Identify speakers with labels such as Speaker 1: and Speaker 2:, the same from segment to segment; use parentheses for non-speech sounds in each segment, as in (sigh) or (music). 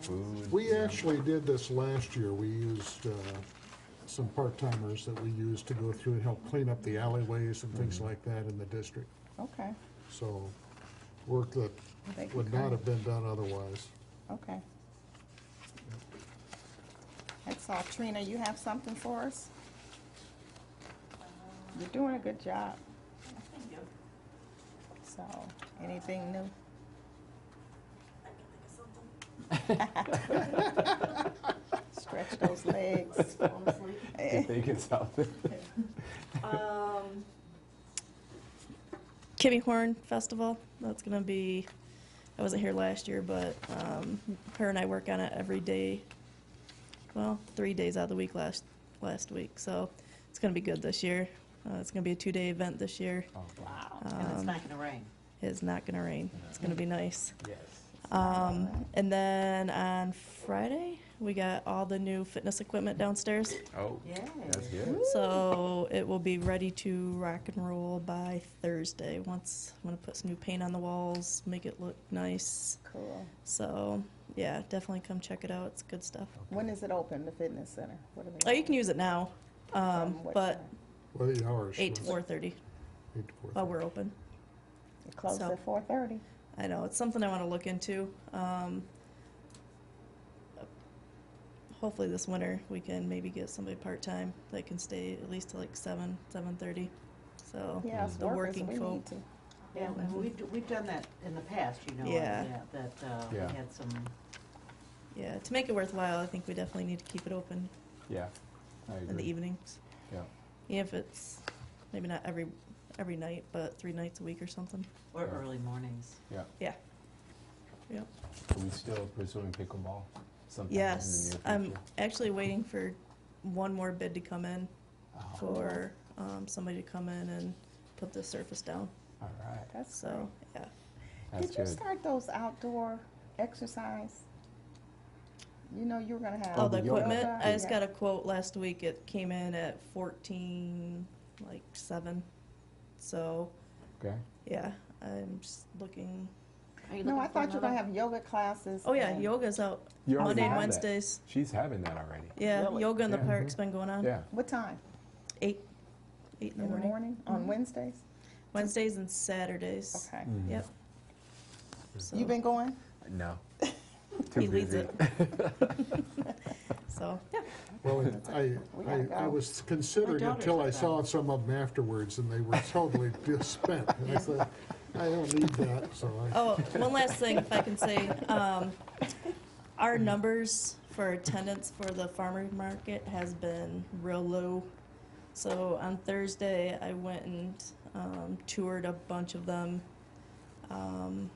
Speaker 1: food.
Speaker 2: We actually did this last year. We used uh, some part-timers that we used to go through and help clean up the alleyways and things like that in the district.
Speaker 3: Okay,
Speaker 2: So work that
Speaker 3: They can
Speaker 2: would
Speaker 3: come.
Speaker 2: not have been done otherwise.
Speaker 3: okay. That's all. Trina, you have something for us? You're doing a good job,
Speaker 4: Thank you.
Speaker 3: so, anything
Speaker 5: (laughs)
Speaker 3: new?
Speaker 4: I can think of something.
Speaker 3: Stretch those legs.
Speaker 4: Honestly.
Speaker 3: Eh,
Speaker 1: They can sell it.
Speaker 4: Um,
Speaker 5: Kimmy Horn Festival. That's going to be, I wasn't here last year, but um, her and I work on it every day. Well, three days out of the week last last week. So it's going to be good this year. Uh, it's going to be a two day event this year.
Speaker 1: Oh,
Speaker 6: And
Speaker 3: Um,
Speaker 6: it's not gonna rain.
Speaker 5: It's not going to rain. It's going to be nice.
Speaker 1: Yes.
Speaker 5: Um, and then on Friday, we got all the new fitness equipment downstairs.
Speaker 1: Oh,
Speaker 6: Yay.
Speaker 1: that's good.
Speaker 5: So it will be ready to rock and roll by Thursday. Once I'm gonna put some new paint on the walls, make it look nice.
Speaker 3: Cool.
Speaker 5: So yeah, definitely come check it out. It's good stuff.
Speaker 3: When is it open, the fitness center? What do we
Speaker 5: Oh, you
Speaker 3: have?
Speaker 5: can use it now, um,
Speaker 3: From what
Speaker 5: but
Speaker 3: time?
Speaker 2: What are the hours?
Speaker 5: eight to
Speaker 2: Russ?
Speaker 5: four thirty
Speaker 2: Eight to four.
Speaker 5: while we're open.
Speaker 3: It closes
Speaker 5: so-
Speaker 3: at four thirty.
Speaker 5: I know it's something I want to look into. Um, hopefully this winter we can maybe get somebody part time that can stay at least till like seven, seven thirty. So
Speaker 3: Yeah, it's
Speaker 5: the
Speaker 3: workers,
Speaker 5: working
Speaker 3: we
Speaker 5: folk.
Speaker 3: need to.
Speaker 6: Yeah, well, we've, d- we've done that in the past, you know. and,
Speaker 5: Yeah.
Speaker 6: That, uh, we
Speaker 1: Yeah.
Speaker 6: had some,
Speaker 5: Yeah, to make it worthwhile, I think we definitely need to keep it open
Speaker 1: Yeah, I agree.
Speaker 5: in the evenings.
Speaker 1: Yeah,
Speaker 5: Even if it's maybe not every every night, but three nights a week or something.
Speaker 6: or
Speaker 1: Yeah.
Speaker 6: early mornings.
Speaker 1: yeah.
Speaker 5: Yeah. Yep.
Speaker 1: Are we still pursuing pickleball? Sometime in the
Speaker 5: Yes, um,
Speaker 1: near
Speaker 5: I'm
Speaker 1: future?
Speaker 5: actually waiting for one more bid to come in
Speaker 1: Oh,
Speaker 5: for um, somebody to come in and put the surface down.
Speaker 1: Oh, All right,
Speaker 3: That's
Speaker 5: So yeah,
Speaker 1: that's
Speaker 3: Did you
Speaker 1: good.
Speaker 3: start those outdoor exercise? You know you were gonna have.
Speaker 5: all
Speaker 1: Oh,
Speaker 5: the
Speaker 1: the yoga?
Speaker 5: equipment. I just
Speaker 3: Yeah.
Speaker 5: got a quote last week. It came in at fourteen, like seven. So
Speaker 1: Okay,
Speaker 5: yeah, I'm just looking.
Speaker 6: Are you
Speaker 3: No,
Speaker 6: looking
Speaker 3: I
Speaker 6: for
Speaker 3: thought you were gonna
Speaker 6: another-
Speaker 3: have yoga classes.
Speaker 5: Oh yeah,
Speaker 3: and-
Speaker 5: yoga's out
Speaker 1: You already
Speaker 5: Monday and
Speaker 1: have that.
Speaker 5: Wednesdays.
Speaker 1: she's having that already.
Speaker 5: Yeah,
Speaker 6: Really?
Speaker 5: yoga in the
Speaker 1: Yeah. mm-hmm.
Speaker 5: park's been going on.
Speaker 1: Yeah,
Speaker 3: What time?
Speaker 5: Eight, eight in the
Speaker 3: In the
Speaker 5: morning. Mm-hmm.
Speaker 3: morning, on Wednesdays?
Speaker 5: Wednesdays and Saturdays.
Speaker 3: Okay.
Speaker 1: Mm,
Speaker 5: Yep. So
Speaker 3: You been going?
Speaker 5: (laughs)
Speaker 1: no.
Speaker 5: he
Speaker 1: Too
Speaker 5: leads
Speaker 1: busy.
Speaker 5: it. (laughs) so yeah,
Speaker 2: Well, I,
Speaker 3: We
Speaker 2: I,
Speaker 3: gotta
Speaker 2: I
Speaker 3: go.
Speaker 2: was considering
Speaker 6: My daughter's
Speaker 2: until I
Speaker 6: like
Speaker 2: saw
Speaker 6: that.
Speaker 2: some of them afterwards and they were totally spent. And I said, I don't need that, so I.
Speaker 5: Oh, one last thing, if I can say, um, our numbers for attendance for the farmer market has been real low. So on Thursday, I went and um, toured a bunch of them, um,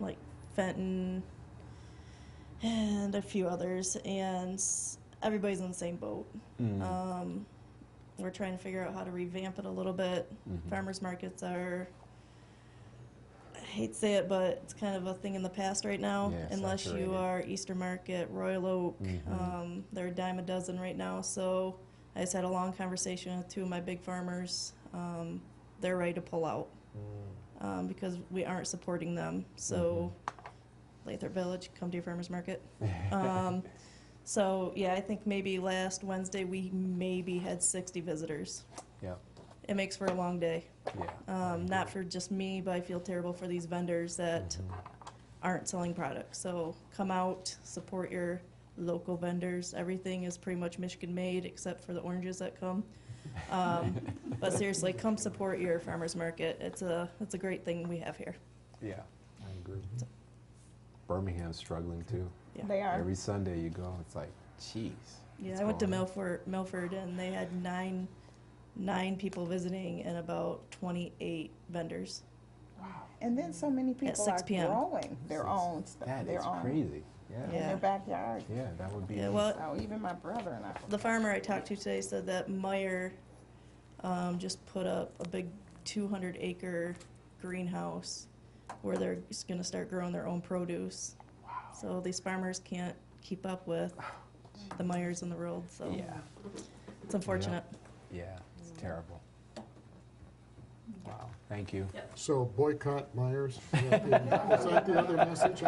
Speaker 5: like Fenton and a few others, and s- everybody's in the same boat.
Speaker 1: Mm-hmm.
Speaker 5: Um, we're trying to figure out how to revamp it a little bit.
Speaker 1: Mhm.
Speaker 5: Farmers markets are I hate to say it, but it's kind of a thing in the past right now.
Speaker 1: Yeah,
Speaker 5: unless
Speaker 1: saturated.
Speaker 5: you are Easter Market, Royal Oak,
Speaker 1: Mhm.
Speaker 5: um, they're a dime a dozen right now. So I just had a long conversation with two of my big farmers. Um, they're ready to pull out
Speaker 1: Mm-hmm.
Speaker 5: um, because we aren't supporting them. So Lathrop Village, come to your farmers market. Um, so yeah, I think maybe last Wednesday we maybe had 60 visitors.
Speaker 1: Yeah,
Speaker 5: It makes for a long day.
Speaker 1: yeah. Mm-hmm.
Speaker 5: Um, not for just me, but I feel terrible for these vendors that
Speaker 1: Mm-hmm.
Speaker 5: aren't selling products. So come out, support your local vendors. Everything is pretty much Michigan made except for the oranges that come. Um, but seriously, come support your farmers market. It's a it's a great thing we have here.
Speaker 1: Yeah, I agree. Birmingham's struggling too.
Speaker 5: Yeah.
Speaker 3: They are.
Speaker 1: Every Sunday you go, it's like, jeez.
Speaker 5: Yeah,
Speaker 1: what's
Speaker 5: I went to
Speaker 1: going on?
Speaker 5: Milford, Milford, and they had nine nine people visiting and about 28 vendors.
Speaker 3: And then so many people
Speaker 5: 6
Speaker 3: are
Speaker 5: p.m..
Speaker 3: growing their
Speaker 1: Six.
Speaker 3: own stuff,
Speaker 1: That
Speaker 3: their
Speaker 1: is
Speaker 3: own,
Speaker 1: crazy. Yeah.
Speaker 3: in
Speaker 5: Yeah.
Speaker 3: their backyard.
Speaker 1: Yeah, that would be.
Speaker 5: Yeah, well,
Speaker 3: So even my brother and I.
Speaker 5: The farmer I talked to today said that Meyer um, just put up a big 200 acre greenhouse where they're just going to start growing their own produce. So these farmers can't keep up with the Meyers in the world. So
Speaker 1: yeah,
Speaker 5: it's unfortunate.
Speaker 1: yeah, it's terrible. Wow, thank you.
Speaker 2: So boycott Myers. Is that the- is that the other message?